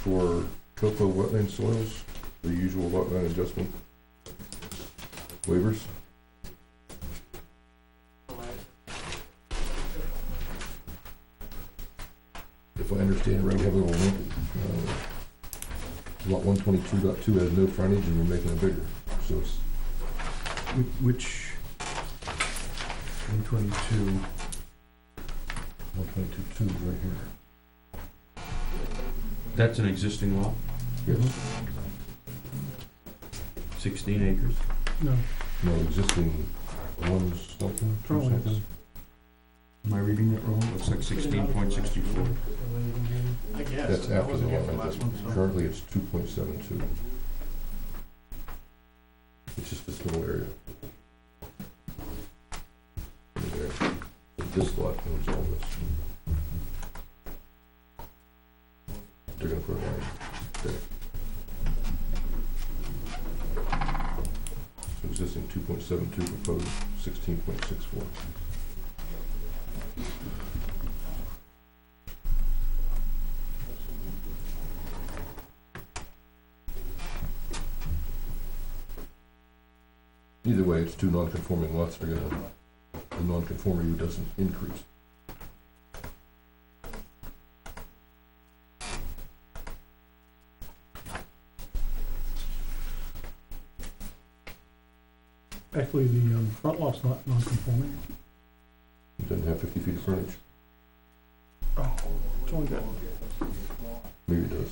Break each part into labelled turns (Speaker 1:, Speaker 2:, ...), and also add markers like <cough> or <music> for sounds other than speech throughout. Speaker 1: for cocoa wetland soils, the usual wetland adjustment waivers. If I understand right, we have a little link, uh, lot one twenty-two dot two has no frontage and we're making it bigger, so it's
Speaker 2: Wh- Which, one twenty-two,
Speaker 1: one twenty-two two right here.
Speaker 3: That's an existing lot,
Speaker 1: Yes,
Speaker 3: sixteen acres.
Speaker 2: no,
Speaker 1: no existing one something, two
Speaker 2: Probably.
Speaker 1: something.
Speaker 3: Am I reading that wrong? Looks like sixteen point sixty-four.
Speaker 4: I guess.
Speaker 1: That's
Speaker 4: I
Speaker 1: after the
Speaker 4: wasn't here for
Speaker 1: lot
Speaker 4: the
Speaker 1: line
Speaker 4: last one,
Speaker 1: adjustment.
Speaker 4: so.
Speaker 1: Currently, it's two point seven two. It's just this little area. There. But This lot owns all this. They're gonna put a line there. So Existing two point seven two, proposed sixteen point six four. Either way, it's two non-conforming lots, they're gonna, the non-conformity doesn't increase.
Speaker 2: actually, the um, front lot's not non-conforming.
Speaker 1: It doesn't have fifty feet of frontage,
Speaker 2: Oh, it's only got
Speaker 1: maybe it does.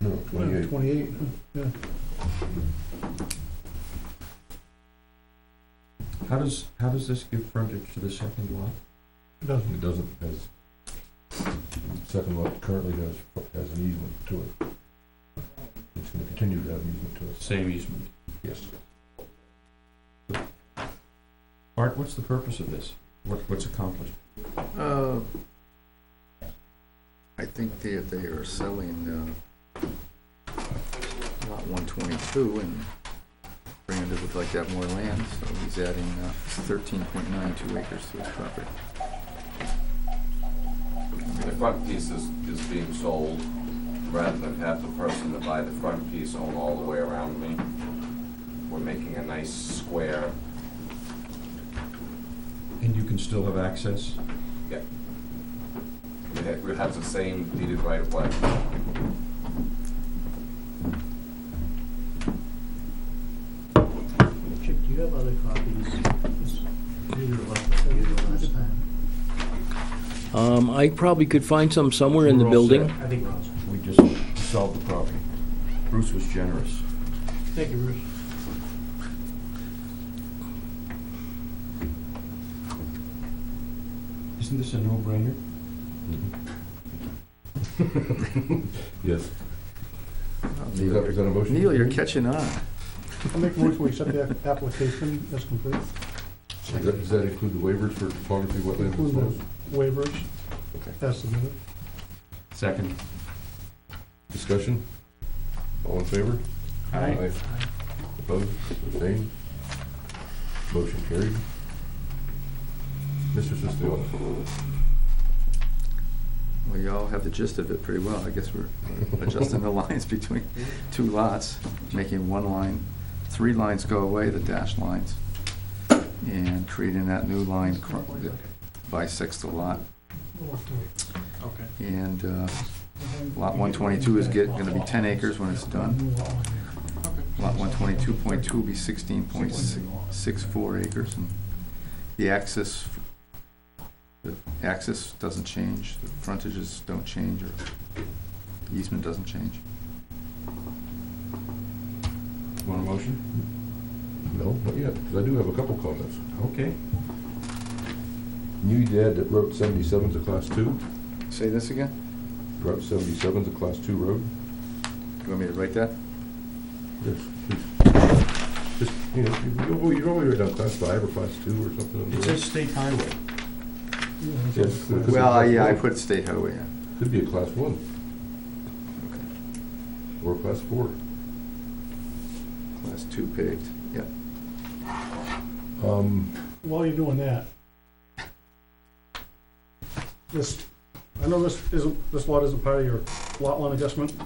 Speaker 1: No,
Speaker 2: uh,
Speaker 1: twenty-eight,
Speaker 2: twenty-eight, huh, yeah.
Speaker 3: How does, how does this give frontage to the second lot?
Speaker 2: It doesn't,
Speaker 1: it doesn't, has, second lot currently has, has an easement to it. It's gonna continue to have an easement to it,
Speaker 3: Same easement.
Speaker 1: yes.
Speaker 3: Art, what's the purpose of this? What, what's accomplished?
Speaker 4: Uh, I think they, they are selling, uh, lot one twenty-two and Brandon would like to have more land, so he's adding, uh, thirteen point nine two acres to his property.
Speaker 5: The front piece is, is being sold, rather than have the person that buy the front piece own all the way around me. We're making a nice square,
Speaker 3: And you can still have access?
Speaker 5: we ha- we have the same deeded right of way.
Speaker 6: Chip, do you have other copies?
Speaker 7: Um, I probably could find some somewhere in the
Speaker 3: We're all set.
Speaker 7: building.
Speaker 6: I think we're all
Speaker 3: We just solved the problem. Bruce was generous.
Speaker 6: Thank you, Bruce.
Speaker 3: Isn't this a no-brainer?
Speaker 1: Yes. Is that, is that a motion?
Speaker 4: Neil, you're catching on.
Speaker 2: I'll make a motion, we accept the app- application as complete,
Speaker 1: Does that- does that include the waivers for topography, wetland, and
Speaker 2: Include
Speaker 1: soils?
Speaker 2: waivers, as submitted.
Speaker 3: Second.
Speaker 1: Discussion? All in favor? Aye. Opposed, abstained? Motion carried. Mr. Sisdale,
Speaker 4: Well, you all have the gist of it pretty well. I guess we're adjusting the <laughs> lines between two lots, making one line, three lines go away, the dashed lines, and creating that new line cr- that bisects the lot.
Speaker 6: Okay.
Speaker 4: And uh, lot 122 is get, gonna be 10 acres when it's done. Lot 122.2 will be 16.64 acres, and the axis, the axis doesn't change, the frontages don't change, or easement doesn't change.
Speaker 3: Want a motion?
Speaker 1: no, not yet, because I do have a couple comments.
Speaker 3: Okay.
Speaker 1: You dad that Route seventy-seven's a class two,
Speaker 4: Say this again?
Speaker 1: Route seventy-seven's a class two road?
Speaker 4: You want me to write that?
Speaker 1: Yes. Just, you know, you- you, you normally write down class five or class two or something.
Speaker 3: It says state highway.
Speaker 1: Yes. Could be
Speaker 4: Well, I-
Speaker 1: class
Speaker 4: yeah, I
Speaker 1: one.
Speaker 4: put state highway in.
Speaker 1: Could be a class one
Speaker 4: Okay.
Speaker 1: or a class four.
Speaker 4: Class two paved, yeah.
Speaker 1: Um,
Speaker 2: While you're doing that, this, I know this isn't, this lot isn't part of your lot line adjustment,